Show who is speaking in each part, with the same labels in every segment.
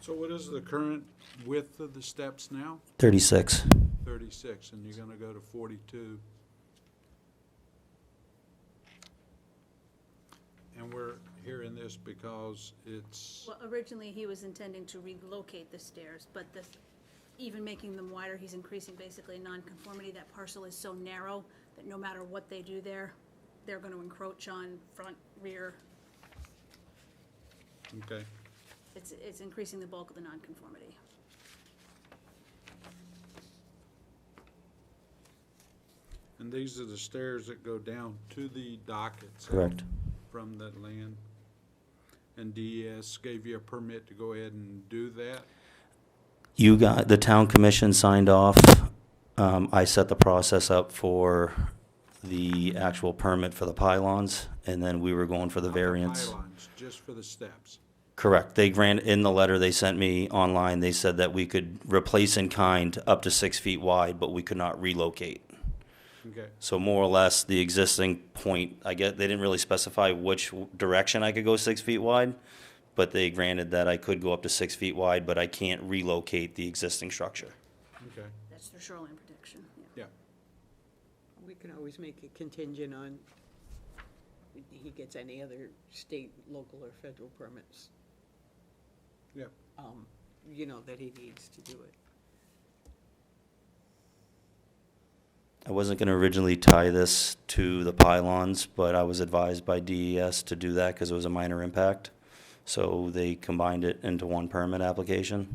Speaker 1: So what is the current width of the steps now?
Speaker 2: 36.
Speaker 1: Thirty-six, and you're gonna go to forty-two. And we're hearing this because it's,
Speaker 3: Well, originally, he was intending to relocate the stairs, but the, even making them wider, he's increasing basically nonconformity. That parcel is so narrow that no matter what they do there, they're gonna encroach on front, rear.
Speaker 1: okay,
Speaker 3: It's, it's increasing the bulk of the nonconformity.
Speaker 1: and these are the stairs that go down to the dock itself.
Speaker 2: Correct.
Speaker 1: From that land. And DES gave you a permit to go ahead and do that?
Speaker 2: You got, the town commission signed off. Um, I set the process up for the actual permit for the pylons, and then we were going for the
Speaker 1: Not the
Speaker 2: variance.
Speaker 1: Pylons, just for the steps.
Speaker 2: Correct. They grant, in the letter they sent me online, they said that we could replace in kind up to six feet wide, but we could not relocate.
Speaker 1: Okay,
Speaker 2: So more or less, the existing point, I get, they didn't really specify which w- direction I could go six feet wide, but they granted that I could go up to six feet wide, but I can't relocate the existing structure.
Speaker 1: okay,
Speaker 3: That's their shoreline protection, yeah.
Speaker 1: yeah.
Speaker 4: We can always make a contingent on he gets any other state, local, or federal permits,
Speaker 1: Yeah,
Speaker 4: um, you know, that he needs to do it.
Speaker 2: I wasn't gonna originally tie this to the pylons, but I was advised by DES to do that because it was a minor impact. So they combined it into one permit application.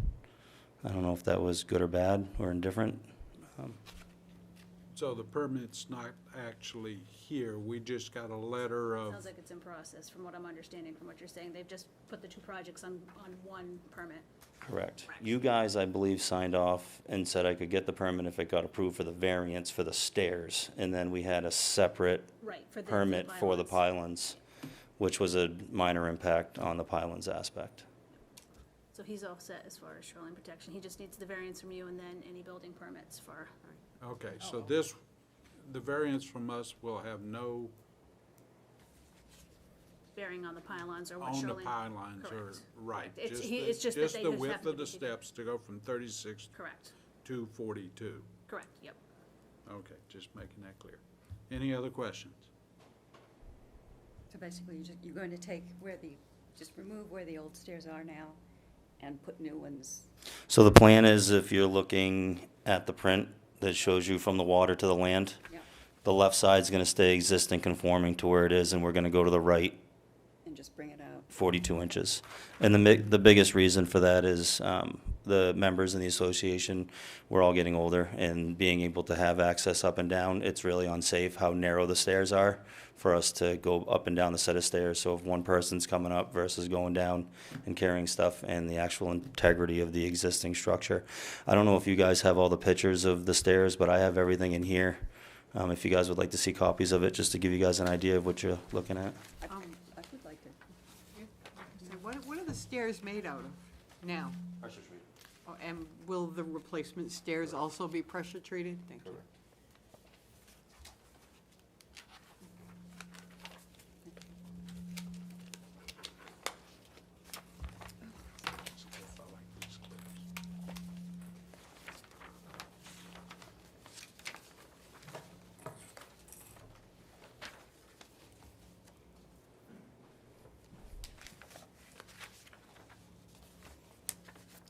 Speaker 2: I don't know if that was good or bad or indifferent.
Speaker 1: so the permit's not actually here, we just got a letter
Speaker 2: Oh.
Speaker 1: of,
Speaker 3: Sounds like it's in process, from what I'm understanding, from what you're saying. They've just put the two projects on, on one permit.
Speaker 2: Correct. You guys, I believe, signed off and said I could get the permit if it got approved for the variance for the stairs. And then we had a separate
Speaker 3: Right, for the.
Speaker 2: permit for the
Speaker 3: pylons.
Speaker 2: pylons, which was a minor impact on the pylons aspect.
Speaker 3: So he's all set as far as shoreline protection. He just needs the variance from you and then any building permits for,
Speaker 1: okay, so this, the variance from us will have no
Speaker 3: bearing on the pylons or what
Speaker 1: on the
Speaker 3: shoreline.
Speaker 1: pylons or,
Speaker 3: Correct.
Speaker 1: right.
Speaker 3: It's-
Speaker 1: just
Speaker 3: he-
Speaker 1: the-
Speaker 3: it's just that they
Speaker 1: the
Speaker 3: just
Speaker 1: width
Speaker 3: happen
Speaker 1: of
Speaker 3: to
Speaker 1: the
Speaker 3: be different.
Speaker 1: steps to go from thirty-six
Speaker 3: Correct,
Speaker 1: to forty-two.
Speaker 3: correct, yep.
Speaker 1: Okay, just making that clear. Any other questions?
Speaker 5: So basically, you're just, you're going to take where the, just remove where the old stairs are now and put new ones.
Speaker 2: So the plan is if you're looking at the print that shows you from the water to the land,
Speaker 5: Yeah.
Speaker 2: the left side's gonna stay existing conforming to where it is, and we're gonna go to the right
Speaker 5: And just bring it out.
Speaker 2: forty-two inches. And the mi- the biggest reason for that is, um, the members in the association, we're all getting older, and being able to have access up and down, it's really unsafe how narrow the stairs are for us to go up and down the set of stairs, so if one person's coming up versus going down and carrying stuff, and the actual integrity of the existing structure. I don't know if you guys have all the pictures of the stairs, but I have everything in here, um, if you guys would like to see copies of it, just to give you guys an idea of what you're looking at.
Speaker 5: I I would like to.
Speaker 4: So What, what are the stairs made out of now? Oh, And will the replacement stairs also be pressure treated? Thank you.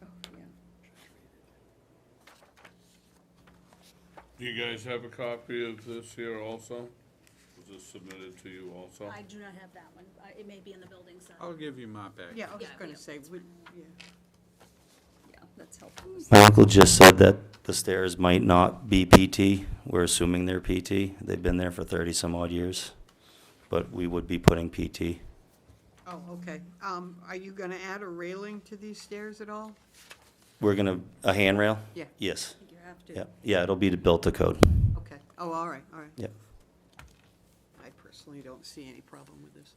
Speaker 5: Oh, yeah.
Speaker 6: Do you guys have a copy of this here also? Was this submitted to you also?
Speaker 3: I do not have that one. I- It may be in the building side.
Speaker 1: I'll give you my back.
Speaker 4: Yeah, I was
Speaker 3: Yeah, yeah.
Speaker 4: gonna say, would, yeah.
Speaker 5: Yeah, that's helpful.
Speaker 2: Michael just said that the stairs might not be PT. We're assuming they're PT. They've been there for 30 some odd years, but we would be putting PT.
Speaker 4: oh, okay. Um, are you gonna add a railing to these stairs at all?
Speaker 2: We're gonna, a handrail?
Speaker 4: Yeah.
Speaker 2: Yes.
Speaker 5: I think you have to.
Speaker 2: Yeah, yeah, it'll be to built to code.
Speaker 4: Okay, oh, all right, all right.
Speaker 2: Yep.
Speaker 4: I personally don't see any problem with this.